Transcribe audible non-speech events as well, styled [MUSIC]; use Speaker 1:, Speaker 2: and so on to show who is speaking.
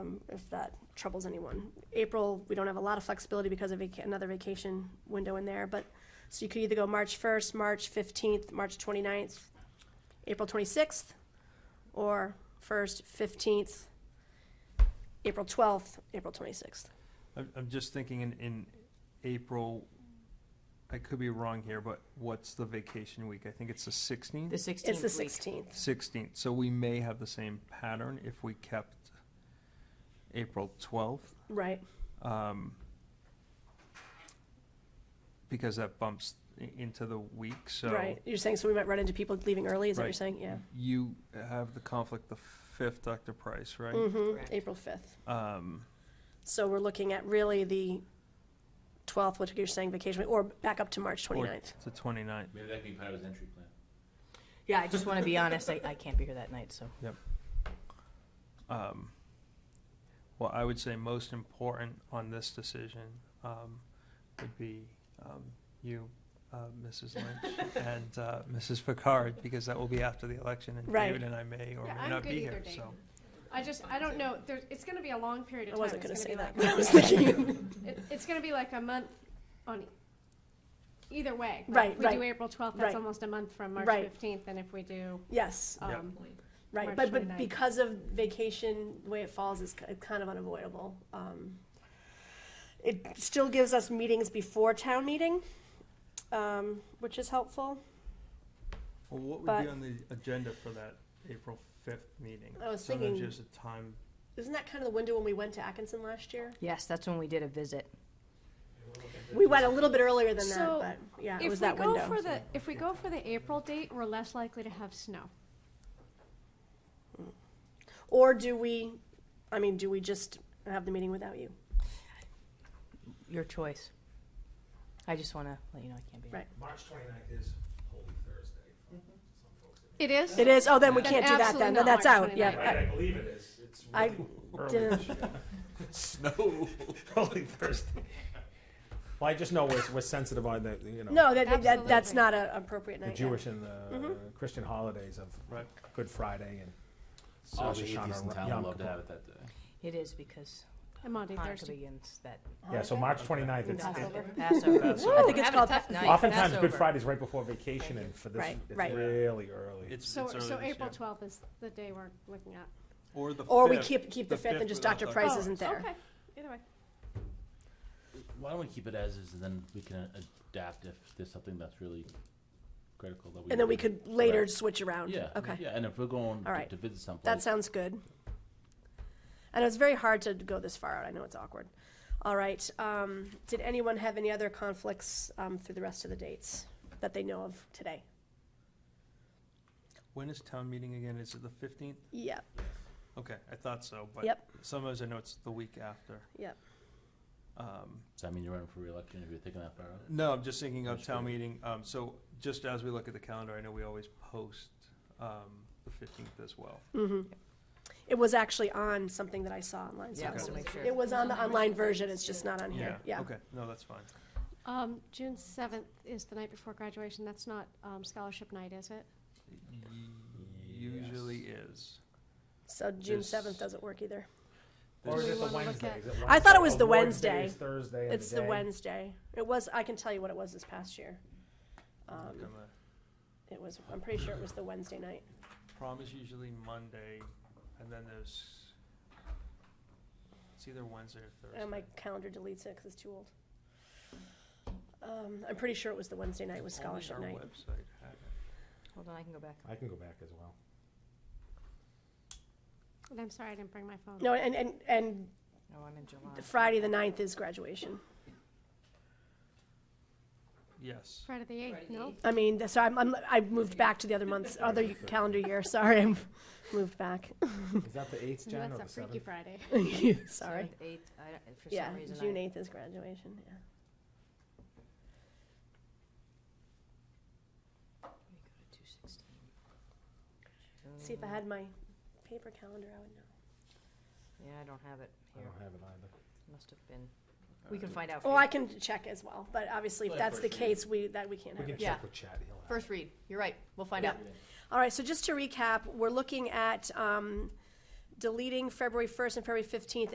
Speaker 1: um, if that troubles anyone. April, we don't have a lot of flexibility because of vaca- another vacation window in there, but, so you could either go March first, March fifteenth, March 29th, April twenty-sixth, or first, fifteenth, April twelfth, April twenty-sixth.
Speaker 2: I'm, I'm just thinking in, in April, I could be wrong here, but what's the vacation week? I think it's the
Speaker 3: The
Speaker 2: sixteenth?
Speaker 1: It's the
Speaker 3: sixteenth week.
Speaker 1: sixteenth.
Speaker 2: Sixteenth, so we may have the same pattern if we kept April twelfth,
Speaker 1: Right,
Speaker 2: um, because that bumps i- into the week, so.
Speaker 1: right. You're saying, so we might run into people leaving early, is that what you're
Speaker 2: Right.
Speaker 1: saying? Yeah.
Speaker 2: You have the conflict the fifth, Dr. Price, right?
Speaker 1: hmm
Speaker 3: Correct.
Speaker 1: April fifth.
Speaker 2: Um,
Speaker 1: So we're looking at really the twelfth, which you're saying vacation, or back up to March
Speaker 2: or
Speaker 1: 29th.
Speaker 2: The twenty-ninth.
Speaker 4: Maybe that could be part of his entry plan.
Speaker 3: Yeah, I just want to be honest, I, I can't be here that night, so.
Speaker 2: um, well, I would say most important on this decision um, would be um, you, uh, Mrs. Lynch, and uh, Mrs. Picard, because that will be after the election, and
Speaker 1: Right.
Speaker 2: David and I may or
Speaker 5: Yeah,
Speaker 2: may
Speaker 5: I'm
Speaker 2: not
Speaker 5: good
Speaker 2: be
Speaker 5: either
Speaker 2: here.
Speaker 5: day.
Speaker 2: So,
Speaker 5: I just, I don't know, there's, it's gonna be a long period of
Speaker 1: I
Speaker 5: time.
Speaker 1: wasn't gonna
Speaker 5: It's
Speaker 1: say that,
Speaker 5: be
Speaker 1: but I
Speaker 5: like- [LAUGHS]
Speaker 1: was thinking, [LAUGHS]
Speaker 5: it- It's gonna be like a month on, e- either way. Like,
Speaker 1: Right, right.
Speaker 5: We do April twelfth, that's
Speaker 1: Right.
Speaker 5: almost a month from March
Speaker 1: Right.
Speaker 5: fifteenth, and if we do,
Speaker 1: yes,
Speaker 2: Yep.
Speaker 5: um,
Speaker 1: right,
Speaker 5: March
Speaker 1: but, but
Speaker 5: 29th.
Speaker 1: because of vacation, the way it falls is ki- kind of unavoidable. Um, It still gives us meetings before town meeting, um, which is helpful.
Speaker 2: well, what would
Speaker 1: But-
Speaker 2: be on the agenda for that April fifth meeting?
Speaker 1: I was
Speaker 2: so
Speaker 1: thinking-
Speaker 2: there's just a time.
Speaker 1: Isn't that kind of the window when we went to Atkinson last year?
Speaker 3: Yes, that's when we did a visit.
Speaker 1: We went a little bit earlier than that,
Speaker 5: So,
Speaker 1: but, yeah, it was
Speaker 5: if we
Speaker 1: that window.
Speaker 5: go for the, if we go for the April date, we're less likely to have snow.
Speaker 1: Or do we, I mean, do we just have the meeting without you?
Speaker 3: Your choice. I just want to let you know I can't be here.
Speaker 1: Right.
Speaker 6: March 29th is Holy Thursday for
Speaker 1: Mm-hmm.
Speaker 6: some folks.
Speaker 5: It is?
Speaker 1: It is, oh, then we
Speaker 5: Then
Speaker 1: can't do that
Speaker 5: absolutely
Speaker 1: then, then
Speaker 5: not
Speaker 1: that's
Speaker 5: March
Speaker 1: out, yeah.
Speaker 5: 29th.
Speaker 6: Right, I
Speaker 1: I-
Speaker 6: believe it is. It's
Speaker 1: I
Speaker 6: really early
Speaker 1: didn't-
Speaker 6: this year.
Speaker 4: Snow.
Speaker 6: Holy Thursday. Well, I just know we're, we're sensitive on the, you know,
Speaker 1: No, that- that, that, that's
Speaker 5: Absolutely.
Speaker 1: not Mm-hmm. an appropriate night.
Speaker 6: the
Speaker 1: yeah.
Speaker 6: Jewish and the Christian holidays of
Speaker 2: Right.
Speaker 6: Good Friday and
Speaker 4: All
Speaker 6: Rosh
Speaker 4: the
Speaker 6: Hashanah
Speaker 4: atheists in
Speaker 6: and
Speaker 4: town
Speaker 6: Yom
Speaker 4: would love to
Speaker 6: Kippur.
Speaker 4: have it that day.
Speaker 3: It is because
Speaker 5: I'm on
Speaker 3: Hanukkah
Speaker 5: Thursday.
Speaker 3: begins that.
Speaker 6: Yeah, so March 29th, it's,
Speaker 3: Passover.
Speaker 6: it-
Speaker 3: Passover.
Speaker 1: I think it's
Speaker 3: Having a
Speaker 1: called-
Speaker 3: tough night.
Speaker 6: oftentimes Good
Speaker 3: Passover.
Speaker 6: Friday's right before vacation and for this,
Speaker 1: Right,
Speaker 6: it's
Speaker 1: right.
Speaker 6: really early.
Speaker 2: It's,
Speaker 5: So,
Speaker 2: it's early
Speaker 5: so
Speaker 2: this
Speaker 5: April
Speaker 2: year.
Speaker 5: twelfth is the day we're looking at.
Speaker 2: or the
Speaker 1: Or we
Speaker 2: 5th.
Speaker 1: keep, keep the
Speaker 2: The
Speaker 1: fifth and
Speaker 2: fifth
Speaker 1: just
Speaker 2: without
Speaker 1: Dr.
Speaker 2: Dr.
Speaker 1: Price
Speaker 2: Oh,
Speaker 1: isn't there.
Speaker 5: Okay, either way.
Speaker 4: Why don't we keep it as is, and then we can adapt if there's something that's really critical that we.
Speaker 1: And then we
Speaker 4: do.
Speaker 1: could later
Speaker 4: Right.
Speaker 1: switch around.
Speaker 4: Yeah.
Speaker 1: Okay,
Speaker 4: Yeah, and if we're going
Speaker 1: All
Speaker 4: to
Speaker 1: right.
Speaker 4: to visit someplace.
Speaker 1: that sounds good. And it's very hard to go this far out, I know it's awkward. All right, um, did anyone have any other conflicts, um, through the rest of the dates that they know of today?
Speaker 2: When is town meeting again? Is it the fifteenth?
Speaker 1: Yeah,
Speaker 2: Okay, I thought so, but
Speaker 1: Yep.
Speaker 2: sometimes I know it's the week after.
Speaker 1: Yep.
Speaker 2: Um,
Speaker 4: Does that mean you're running for reelection if you're thinking that far out?
Speaker 2: No, I'm just thinking of
Speaker 4: That's
Speaker 2: town
Speaker 4: good.
Speaker 2: meeting, um, so just as we look at the calendar, I know we always post, um, the fifteenth as well.
Speaker 1: mm-hmm. It was actually on something that I saw online. so
Speaker 3: Yeah,
Speaker 1: it was-
Speaker 3: so make sure.
Speaker 1: It was on the online version, it's just not on here, yeah.
Speaker 2: Okay, no, that's fine.
Speaker 5: Um, June seventh is the night before graduation, that's not, um, scholarship night, is it?
Speaker 2: Usually is.
Speaker 1: So June
Speaker 2: There's-
Speaker 1: seventh doesn't work either.
Speaker 6: Or is
Speaker 5: we
Speaker 6: it the
Speaker 5: wanna look
Speaker 6: Wednesday?
Speaker 5: at-
Speaker 6: Is it
Speaker 1: I thought it
Speaker 6: Wednesday?
Speaker 1: was
Speaker 6: Oh,
Speaker 1: the Wednesday.
Speaker 6: is Thursday in
Speaker 1: It's the
Speaker 6: day.
Speaker 1: Wednesday. It was, I can tell you what it was this past year. Um,
Speaker 2: Look, I'm a-
Speaker 1: it was, I'm pretty sure it was the Wednesday night.
Speaker 2: Prom is usually Monday, and then there's, it's either Wednesday or Thursday.
Speaker 1: And Oh, my calendar deletes it because it's too old. Um, I'm pretty sure it was the Wednesday night was
Speaker 2: Only
Speaker 1: scholarship
Speaker 2: our
Speaker 1: night.
Speaker 2: website had it.
Speaker 3: Hold on, I can go back.
Speaker 6: I can go back as
Speaker 1: [LAUGHS]
Speaker 6: well.
Speaker 5: And I'm sorry, I didn't bring my phone.
Speaker 1: No, and, and, and
Speaker 3: No, I'm in July.
Speaker 1: Friday the ninth is graduation.
Speaker 2: Yes,
Speaker 5: Friday the eighth, no?
Speaker 1: I mean, th- so I'm, I'm, I moved back to the other month's, other calendar year, sorry, I'm [LAUGHS] moved back.
Speaker 6: Is that the eighth, Jen, or
Speaker 5: That's a
Speaker 6: the
Speaker 5: Freaky
Speaker 6: seventh?
Speaker 5: Friday.
Speaker 1: Sorry.
Speaker 3: Seventh, eighth, I don't- for
Speaker 1: Yeah,
Speaker 3: some reason. I-
Speaker 1: June eighth is graduation, yeah.
Speaker 3: Let me go to 216.
Speaker 1: See, if I had my paper calendar, I would know.
Speaker 3: Yeah, I don't have it
Speaker 6: I
Speaker 3: here.
Speaker 6: don't have it either.
Speaker 3: Must have been, Uh, oh, we can find out. for
Speaker 1: Well,
Speaker 3: you.
Speaker 1: I can check as well, but obviously if
Speaker 4: Like
Speaker 1: that's the
Speaker 4: first reading.
Speaker 1: case, we, that we can't
Speaker 6: We
Speaker 1: have
Speaker 6: can
Speaker 1: it.
Speaker 3: Yeah.
Speaker 6: check with Chad. He'll have it.
Speaker 3: First read, you're right, we'll find
Speaker 1: Yeah.
Speaker 3: out.
Speaker 1: All right, so just to recap, we're looking at um, deleting February 1st and February 15th